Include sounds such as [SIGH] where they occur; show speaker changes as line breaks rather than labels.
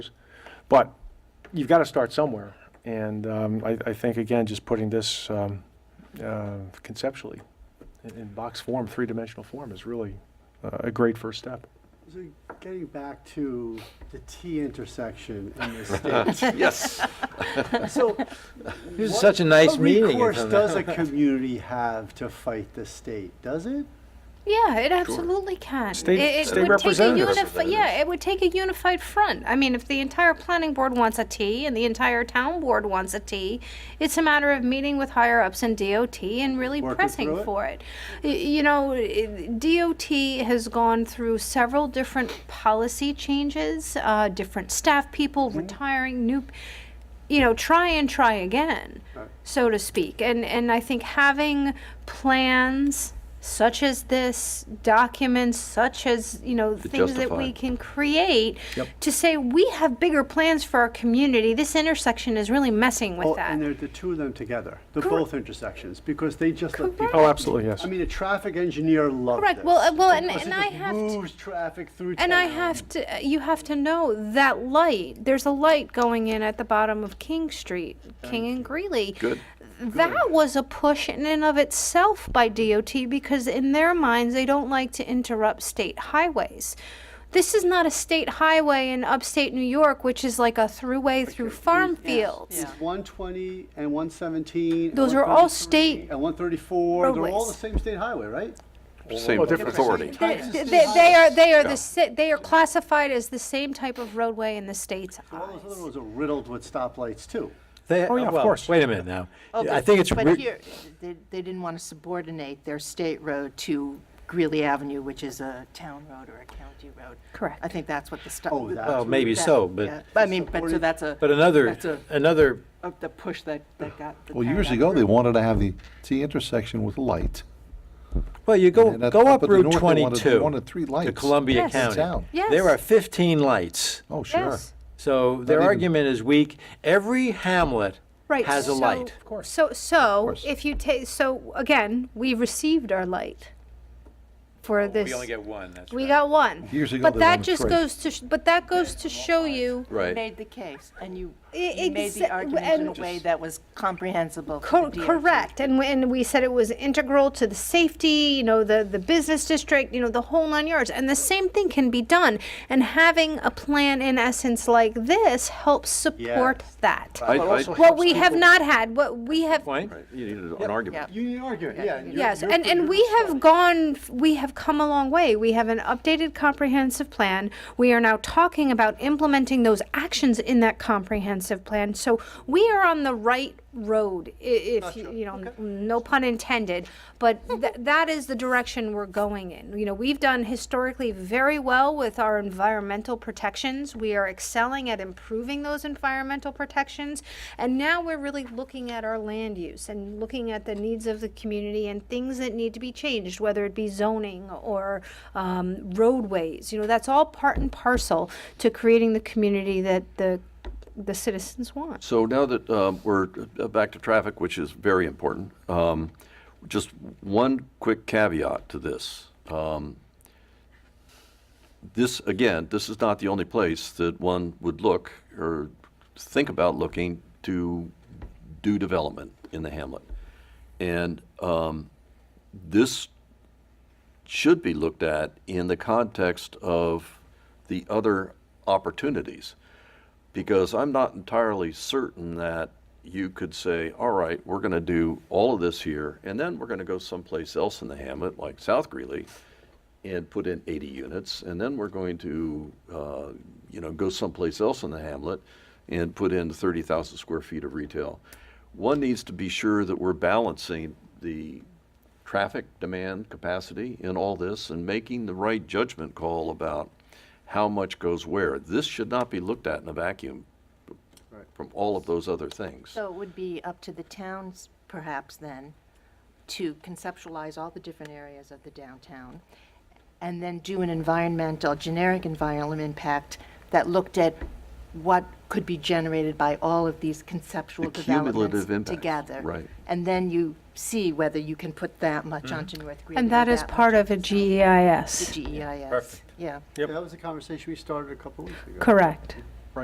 But you've got to start somewhere. And um, I, I think, again, just putting this um, uh, conceptually in, in box form, three-dimensional form, is really uh, a great first step.
So getting back to the T intersection in this
[LAUGHS]
state.
Yes.
[LAUGHS]
So.
This is
what-
such a nice meeting,
What recourse
isn't it?
does a community have to fight the state? Does it?
Yeah, it absolutely can.
State-
It- it
state
would take a
representatives.
unifi- Yeah, it would take a unified front. I mean, if the entire planning board wants a T and the entire town board wants a T, it's a matter of meeting with higher ups in DOT and really
Working through
pressing
it.
for it. Y- You know, i- DOT has gone through several different policy changes, uh, different staff people
Mm-hmm.
retiring, new, you know, try and try again
Right.
so to speak. And and I think having plans such as this, documents such as you know things that
justify.
we can create
Yep.
to say we have bigger plans for our community. This intersection is really messing with
Oh,
that.
And they're the two of them together, the
Correct.
both intersections, because they just let people.
Oh, absolutely, yes.
I mean, a traffic engineer loved this.
Correct. Well, uh, well, and-
Oh, because
and
it
I
just
have to-
Moves traffic through town.
And I have to, uh, you have to know that light, there's a light going in at the bottom of King Street, King and Greeley.
Good.
That was a push in and of itself by DOT because in their minds, they don't like to interrupt state highways. This is not a state highway in upstate New York, which is like a throughway through farm fields.
yeah.
120 and 117. and
Those are all
133
state
And 134, they're all
roadways.
the same state highway, right?
Same
Well, different-
authority.
They,
Types of
they-
state
they are, they are
Yeah.
the, sa- they are classified as the same type of roadway in the state's
All those
eyes.
other roads are riddled with stoplights, too.
They-
Oh, yeah, of
well,
course.
Wait a minute now.
Oh,
I
but-
think it's, re-
But here, they, they didn't want to subordinate their state road to Greeley Avenue, which is a town road or a county road.
Correct.
I think that's what the stuff.
Oh, that's.
well,
what-
maybe so,
yeah.
but,
I mean, but so that's a.
but another,
That's a,
another,
of the push that, that got. the
Well,
town
years
down.
ago, they wanted to have the T intersection with light.
well, you go,
And at-
go up
at the
Route
north, they wanted- they
22
wanted three
to
lights.
Columbia
Yes.
County.
Town.
Yes.
There are 15 lights.
Oh, sure.
Yes.
So their
even-
argument is weak. Every hamlet
Right.
has a
so-
light.
So, so
course.
if you take, so again, we received our light for this.
We only get one, that's
We
right.
got one.
Years ago,
But
they
that
wanted
just
three.
goes to, sh- but that goes to show you,
You
Right.
Made the case, and you,
E-
you made
exa-
the argument in a
and-
way that was comprehensible. for
cor-
the DOT.
correct, and we, and we said it was integral to the safety, you know, the, the business district, you know, the whole nine yards, and the same thing can be done. And having a plan in essence like this helps support that.
I-
But
I-
also
What
helps
we have
people-
not had, what we have
Point?
right. You needed an argument.
You need an argument, yeah. and you're-
Yes,
you're
and,
familiar
and we
with
have gone, f- we have come a long way. We have an updated comprehensive plan. We are now talking about implementing those actions in that comprehensive plan. So we are on the right road, i- if, you you know, n- no pun intended. But th- that is the direction we're going in. You know, we've done historically very well with our environmental protections. We are excelling at improving those environmental protections. And now we're really looking at our land use and looking at the needs of the community and things that need to be changed, whether it be zoning or um, roadways. You know, that's all part and parcel to creating the community that the the citizens want.
So now that um, we're uh, back to traffic, which is very important, um, just one quick caveat to this. Um, This, again, this is not the only place that one would look or think about looking to do development in the hamlet. And um, this should be looked at in the context of the other opportunities because I'm not entirely certain that you could say, all right, we're going to do all of this here, and then we're going to go someplace else in the hamlet, like South Greeley, and put in 80 units, and then we're going to, uh, you know, go someplace else in the hamlet and put in 30,000 square feet of retail. One needs to be sure that we're balancing the traffic demand capacity in all this and making the right judgment call about how much goes where. This should not be looked at in a vacuum from all of those other things.
So it would be up to the towns perhaps then to conceptualize all the different areas of the downtown and then do an environmental, generic environmental impact that looked at what could be generated by all of these conceptual
The cumulative
developments
impact,
together.
right.
And then you see whether you can put that much onto North Greeley.
And that is
much E
part of a E
onto
GEIS.
GEIS.
Perfect.
Yeah.
That was a conversation we started a couple weeks ago.
Correct.